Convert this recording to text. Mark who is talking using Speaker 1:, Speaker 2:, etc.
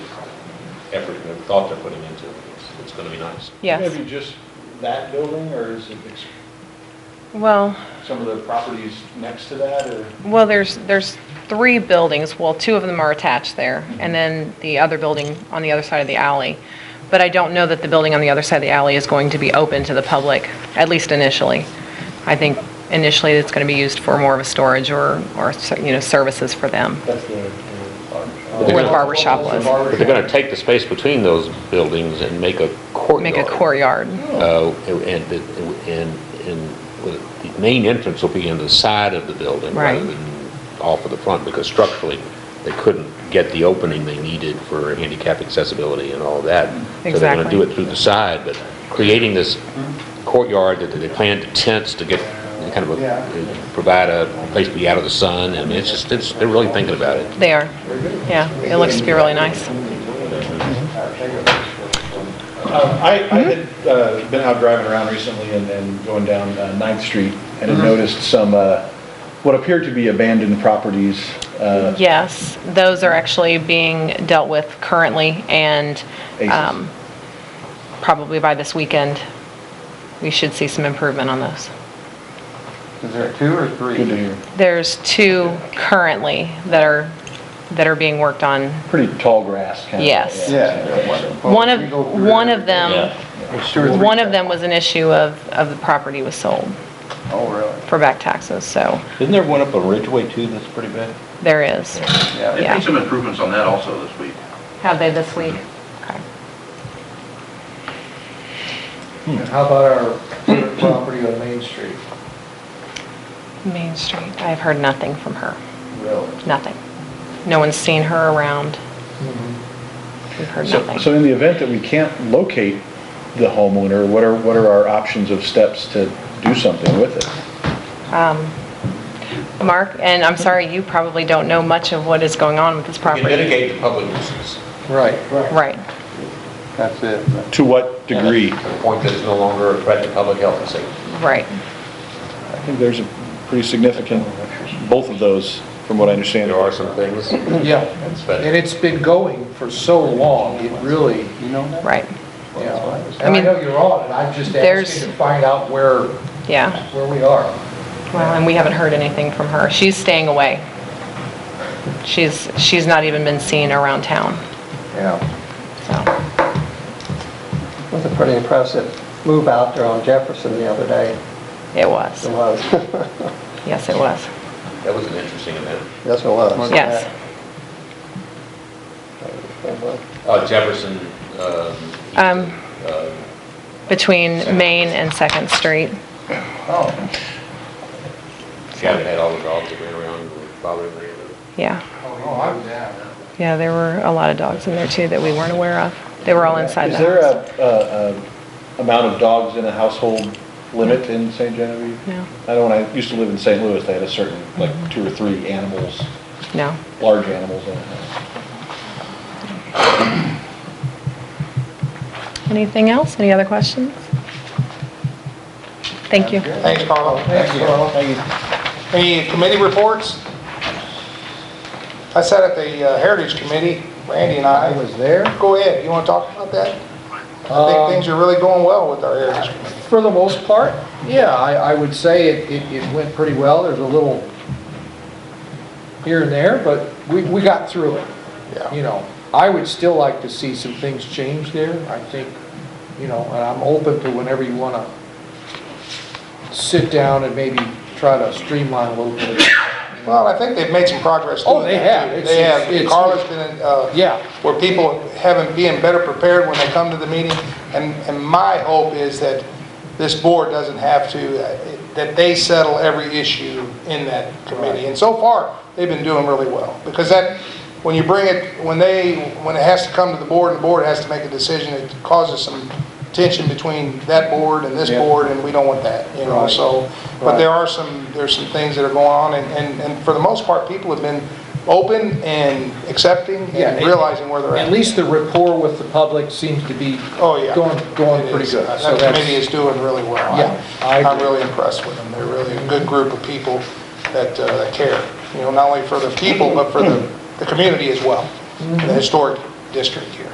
Speaker 1: effort and the thought they're putting into it. It's- It's going to be nice.
Speaker 2: Yes.
Speaker 3: Maybe just that building, or is it ex-
Speaker 2: Well,
Speaker 3: some of the properties next to that, or?
Speaker 2: well, there's, there's three buildings, well, two of them are attached there, and then the other building on the other side of the alley. But I don't know that the building on the other side of the alley is going to be open to the public, at least initially. I think initially it's going to be used for more of a storage or, or, you know, services for them.
Speaker 3: That's the, the.
Speaker 2: Where the barber shop was.
Speaker 1: But they're going to take the space between those buildings and make a courtyard.
Speaker 2: Make a courtyard. Oh.
Speaker 1: Uh, And, the- and, and the main entrance will be in the side of the building rather
Speaker 2: Right.
Speaker 1: than off of the front, because structurally, they couldn't get the opening they needed for handicap accessibility and all that. So they're going to do
Speaker 2: Exactly.
Speaker 1: it through the side, but creating this courtyard that they planned to tents to get, kind of,
Speaker 3: Yeah.
Speaker 1: a- provide a place to be out of the sun, I mean, it's just, it's, they're really thinking about it.
Speaker 2: They are, yeah, it looks to be really nice.
Speaker 3: Mm-hmm. Um, I, I had uh, been out driving around recently and then going down uh, Ninth Street and had noticed some, uh, what appeared to be abandoned properties. uh,
Speaker 2: Yes, those are actually being dealt with currently, and
Speaker 3: Aces.
Speaker 2: um, probably by this weekend, we should see some improvement on those.
Speaker 4: Is there two or three?
Speaker 3: Good to hear.
Speaker 2: There's two currently that are, that are being worked on.
Speaker 3: Pretty tall grass kind of.
Speaker 2: Yes.
Speaker 3: Yeah.
Speaker 4: Well,
Speaker 2: One
Speaker 4: Oh, we go
Speaker 2: of,
Speaker 4: through
Speaker 2: one of
Speaker 4: everything.
Speaker 2: them,
Speaker 4: There's two or three
Speaker 2: one of them
Speaker 4: things.
Speaker 2: was an issue of, of the property was sold
Speaker 4: Oh, really?
Speaker 2: for back taxes, so
Speaker 4: Isn't there one up on Ridgeway too that's pretty big?
Speaker 2: there is.
Speaker 4: Yeah.
Speaker 5: They've made
Speaker 2: Yeah.
Speaker 5: some improvements on that also this week.
Speaker 2: Have they this week?
Speaker 4: Mm-hmm.
Speaker 2: Okay.
Speaker 3: Hmm.
Speaker 6: How about our favorite property on Main Street?
Speaker 2: Main Street, I've heard nothing from her,
Speaker 6: Really?
Speaker 2: nothing. No one's seen her around. We've heard
Speaker 3: So
Speaker 2: nothing.
Speaker 3: so in the event that we can't locate the homeowner, what are, what are our options of steps to do something with it?
Speaker 2: Mark, and I'm sorry, you probably don't know much of what is going on with this
Speaker 1: You
Speaker 2: property.
Speaker 1: mitigate the public nuisance
Speaker 4: Right,
Speaker 2: Right,
Speaker 4: that's it.
Speaker 3: To what degree?
Speaker 1: to the point that it's no longer a threat to public health and safety.
Speaker 2: right.
Speaker 3: I think there's a pretty significant, both of those, from what I understand.
Speaker 1: There are some things.
Speaker 6: Yeah,
Speaker 1: That's better.
Speaker 6: and it's been going for so long, it really,
Speaker 4: You know that?
Speaker 2: Right,
Speaker 6: you know,
Speaker 2: I
Speaker 6: and I
Speaker 2: mean,
Speaker 6: know you're on it, I'm just
Speaker 2: there's-
Speaker 6: asking to find out where,
Speaker 2: yeah.
Speaker 6: where we are.
Speaker 2: Well, and we haven't heard anything from her. She's staying away. She's, she's not even been seen around town,
Speaker 6: Yeah.
Speaker 2: so.
Speaker 7: was a pretty impressive move out there on Jefferson the other day.
Speaker 2: It was,
Speaker 7: It was.
Speaker 2: yes, it was,
Speaker 1: That was an interesting event.
Speaker 7: Yes, it was.
Speaker 2: yes.
Speaker 1: Uh, Jefferson, um,
Speaker 2: Um,
Speaker 1: uh,
Speaker 2: Between Main and Second Street,
Speaker 6: Oh,
Speaker 1: Gavin had all the dogs that ran around and were bothering her.
Speaker 2: yeah.
Speaker 6: oh, I'm down.
Speaker 2: Yeah, there were a lot of dogs in there too that we weren't aware of. They were all inside the
Speaker 3: Is there
Speaker 2: house.
Speaker 3: a, a, a amount of dogs in a household limit in St. Genevieve?
Speaker 2: No.
Speaker 3: I know when I used to live in St. Louis, they had a certain, like, two or three animals,
Speaker 2: No,
Speaker 3: large animals in a house.
Speaker 2: anything else? Any other questions? Thank you.
Speaker 4: Thanks, Carl. Thanks, Carl. Any committee reports? I sat at the uh, Heritage Committee, Randy and
Speaker 6: I
Speaker 4: I.
Speaker 6: was there.
Speaker 4: Go ahead, you want to talk about that? I think
Speaker 6: Um,
Speaker 4: things are really going well with our Heritage Committee.
Speaker 6: For the most part, yeah, I, I would say it, it, it went pretty well. There's a little here and there, but we, we got through it.
Speaker 4: Yeah.
Speaker 6: You know, I would still like to see some things change there. I think, you know, and I'm open to whenever you wanna sit down and maybe try to streamline a little bit.
Speaker 4: Well, I think they've made some progress.
Speaker 6: Oh,
Speaker 4: doing
Speaker 6: they
Speaker 4: that,
Speaker 6: have.
Speaker 4: too.
Speaker 6: It's-
Speaker 4: They have.
Speaker 6: it's-
Speaker 4: Carla's been, uh,
Speaker 6: Yeah,
Speaker 4: where people having, being better prepared when they come to the meeting. And, and my hope is that this board doesn't have to, uh, that they settle every issue in that committee. And so far, they've been doing really well. Because that, when you bring it, when they, when it has to come to the board and the board has to make a decision, it causes some tension between that board and this
Speaker 6: Yeah.
Speaker 4: board, and we don't want that, you know,
Speaker 6: Right.
Speaker 4: so. But there are some, there's some things that are going on, and, and and for the most part, people have been open and accepting
Speaker 6: Yeah,
Speaker 4: and realizing where they're at.
Speaker 6: at least the rapport with the public seems to be
Speaker 4: Oh, yeah.
Speaker 6: going, going
Speaker 4: It
Speaker 6: pretty
Speaker 4: is.
Speaker 6: good. So
Speaker 4: That
Speaker 6: that's-
Speaker 4: committee is doing really well.
Speaker 6: Yeah, I
Speaker 4: I'm
Speaker 6: agree.
Speaker 4: really impressed with them. They're really a good group of people that, uh, that care,
Speaker 6: Mm-hmm.
Speaker 4: you know, not only for the people, but for the, the community as well, the historic district here.